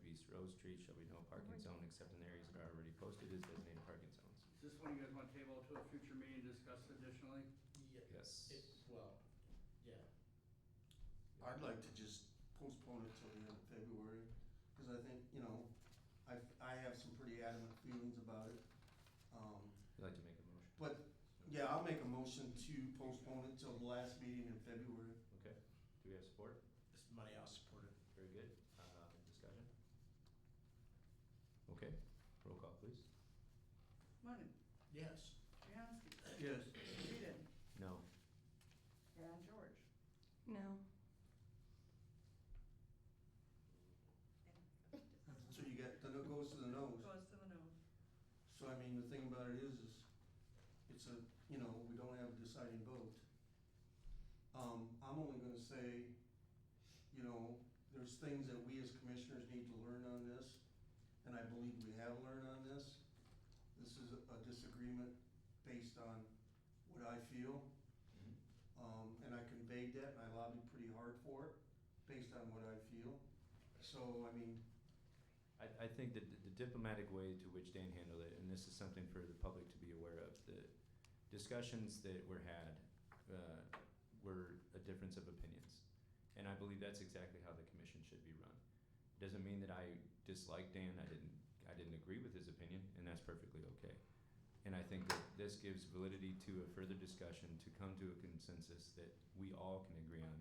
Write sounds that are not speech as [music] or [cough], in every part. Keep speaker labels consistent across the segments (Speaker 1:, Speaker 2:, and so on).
Speaker 1: proposed streets shall be no parking zone except in areas that are already posted as designated parking zones.
Speaker 2: Is this one you guys want to table to a future meeting, discuss additionally?
Speaker 3: Yeah,
Speaker 1: Yes.
Speaker 3: it, well, yeah,
Speaker 4: I'd like to just postpone it till the end of February, because I think, you know, I, I have some pretty adamant feelings about it. Um,
Speaker 1: You'd like to make a motion?
Speaker 4: But, yeah, I'll make a motion to postpone it till the last meeting in February.
Speaker 1: Okay. Do we have support?
Speaker 3: this money I'll support it.
Speaker 1: Very good. Uh, discussion? Okay, roll call, please.
Speaker 5: Money,
Speaker 3: Yes.
Speaker 5: Bianski,
Speaker 4: Yes.
Speaker 5: Whedon,
Speaker 1: No.
Speaker 5: and George.
Speaker 6: No.
Speaker 4: So you got, then it goes to the nose.
Speaker 5: Goes to the nose.
Speaker 4: So I mean, the thing about it is, is it's a, you know, we don't have a deciding vote. Um, I'm only gonna say, you know, there's things that we as commissioners need to learn on this, and I believe we have learned on this. This is a disagreement based on what I feel.
Speaker 2: Mm-hmm.
Speaker 4: Um, and I conveyed that, and I lobbied pretty hard for it, based on what I feel. So, I mean,
Speaker 1: I, I think that the diplomatic way to which Dan handled it, and this is something for the public to be aware of, the discussions that were had uh, were a difference of opinions. And I believe that's exactly how the commission should be run. Doesn't mean that I dislike Dan, I didn't, I didn't agree with his opinion, and that's perfectly okay. And I think that this gives validity to a further discussion to come to a consensus that we all can agree on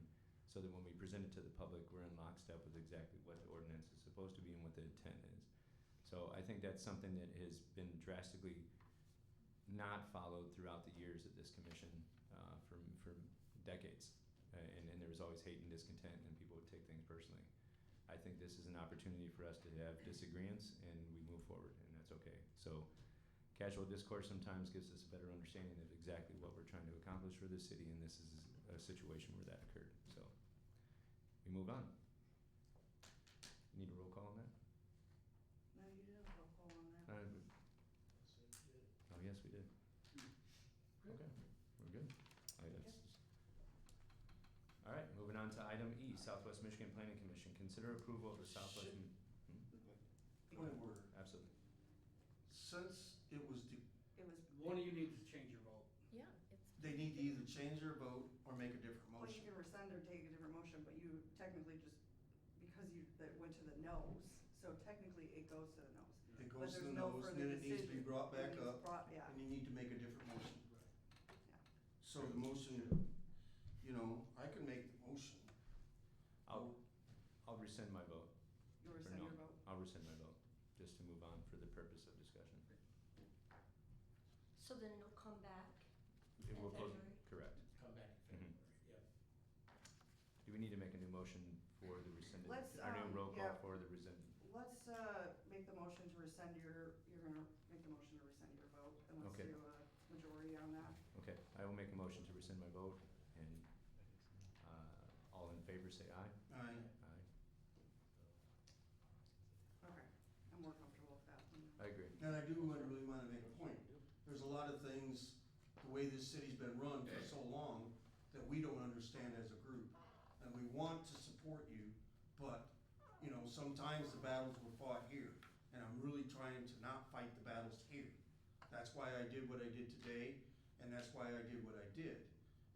Speaker 1: so that when we present it to the public, we're in lockstep with exactly what the ordinance is supposed to be and what the intent is. So I think that's something that has been drastically not followed throughout the years of this commission uh, for, for decades. Uh, and, and there was always hate and discontent, and people would take things personally. I think this is an opportunity for us to have disagreements and we move forward, and that's okay. So, casual discourse sometimes gives us a better understanding of exactly what we're trying to accomplish for the city, and this is a situation where that occurred. So, we move on. You need a roll call on
Speaker 5: No, you didn't have a poll on
Speaker 1: that?
Speaker 5: that.
Speaker 1: Uh,
Speaker 3: So, good.
Speaker 1: oh, yes, we did.
Speaker 5: Hmm.
Speaker 1: Okay, we're good. I guess. All right, moving on to item E, Southwest Michigan Planning Commission. Consider approval of the Southwest.
Speaker 3: Shit.
Speaker 1: Hmm?
Speaker 4: point of order.
Speaker 1: Absolutely.
Speaker 4: Since it was de-
Speaker 6: It was.
Speaker 2: One of you needs to change your vote.
Speaker 6: Yeah, it's.
Speaker 4: They need to either change their vote or make a different
Speaker 5: Well, you
Speaker 4: motion.
Speaker 5: can rescind or take a different motion, but you technically just, because you, that went to the nose, so technically it goes to the nose.
Speaker 4: It
Speaker 5: But
Speaker 4: goes to
Speaker 5: there's
Speaker 4: the
Speaker 5: no
Speaker 4: nose,
Speaker 5: further
Speaker 4: then it needs to be
Speaker 5: decision.
Speaker 4: brought
Speaker 5: It
Speaker 4: back
Speaker 5: needs
Speaker 4: up,
Speaker 5: brought- yeah,
Speaker 4: and you need to make a different motion.
Speaker 5: yeah.
Speaker 4: So the motion, you know, I can make the motion.
Speaker 1: I'll, I'll rescind my vote.
Speaker 5: You
Speaker 1: Or
Speaker 5: rescind
Speaker 1: no,
Speaker 5: your vote?
Speaker 1: I'll rescind my vote, just to move on for the purpose of discussion.
Speaker 6: So then it'll come back.
Speaker 1: It will vote-
Speaker 6: February?
Speaker 1: Correct.
Speaker 3: Come back in February, yep.
Speaker 1: Do we need to make a new motion for the rescinded,
Speaker 5: Let's,
Speaker 1: our
Speaker 5: um,
Speaker 1: new roll call
Speaker 5: yeah.
Speaker 1: for the rescinded?
Speaker 5: Let's, uh, make the motion to rescind your, you're gonna make the motion to rescind your vote, and let's
Speaker 1: Okay.
Speaker 5: do a majority on that.
Speaker 1: Okay, I will make a motion to rescind my vote, and, uh, all in favor say aye.
Speaker 4: I,
Speaker 1: Aye.
Speaker 5: Okay, I'm more comfortable with that. than-
Speaker 1: I agree.
Speaker 4: and I do wanna- really wanna make a point. There's a lot of things, the way this city's been run for so long, that we don't understand as a group. And we want to support you, but, you know, sometimes the battles were fought here. And I'm really trying to not fight the battles here. That's why I did what I did today, and that's why I did what I did.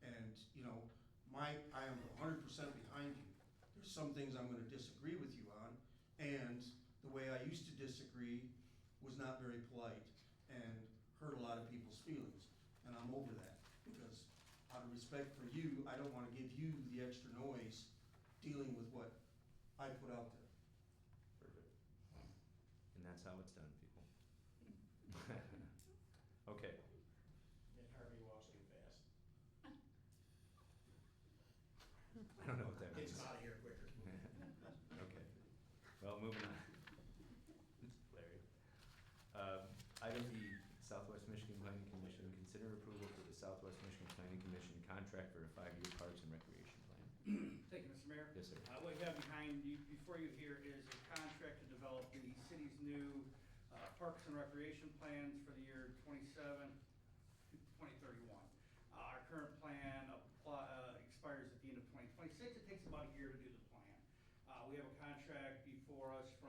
Speaker 4: And, you know, my, I am hundred percent behind you. There's some things I'm gonna disagree with you on, and the way I used to disagree was not very polite and hurt a lot of people's feelings, and I'm over that, because out of respect for you, I don't wanna give you the extra noise dealing with what I put out there.
Speaker 1: Perfect. And that's how it's done, people. [laughs] Okay,
Speaker 3: And Harvey walks too fast.
Speaker 1: I don't know what that means. [laughs]
Speaker 3: Gets him out of here quicker.
Speaker 1: Okay, well, moving on. Larry. Um, Item E, Southwest Michigan Planning Commission, consider approval for the Southwest Michigan Planning Commission contract for a five-year parks and recreation plan.
Speaker 2: Thank you, Mr. Mayor.
Speaker 1: Yes, sir.
Speaker 2: Uh, What you have behind you, before you here is a contract to develop the city's new uh, parks and recreation plans for the year 27, 2031. Uh, Our current plan apply- uh, expires at the end of 2026. It takes about a year to do the plan. Uh, We have a contract before us from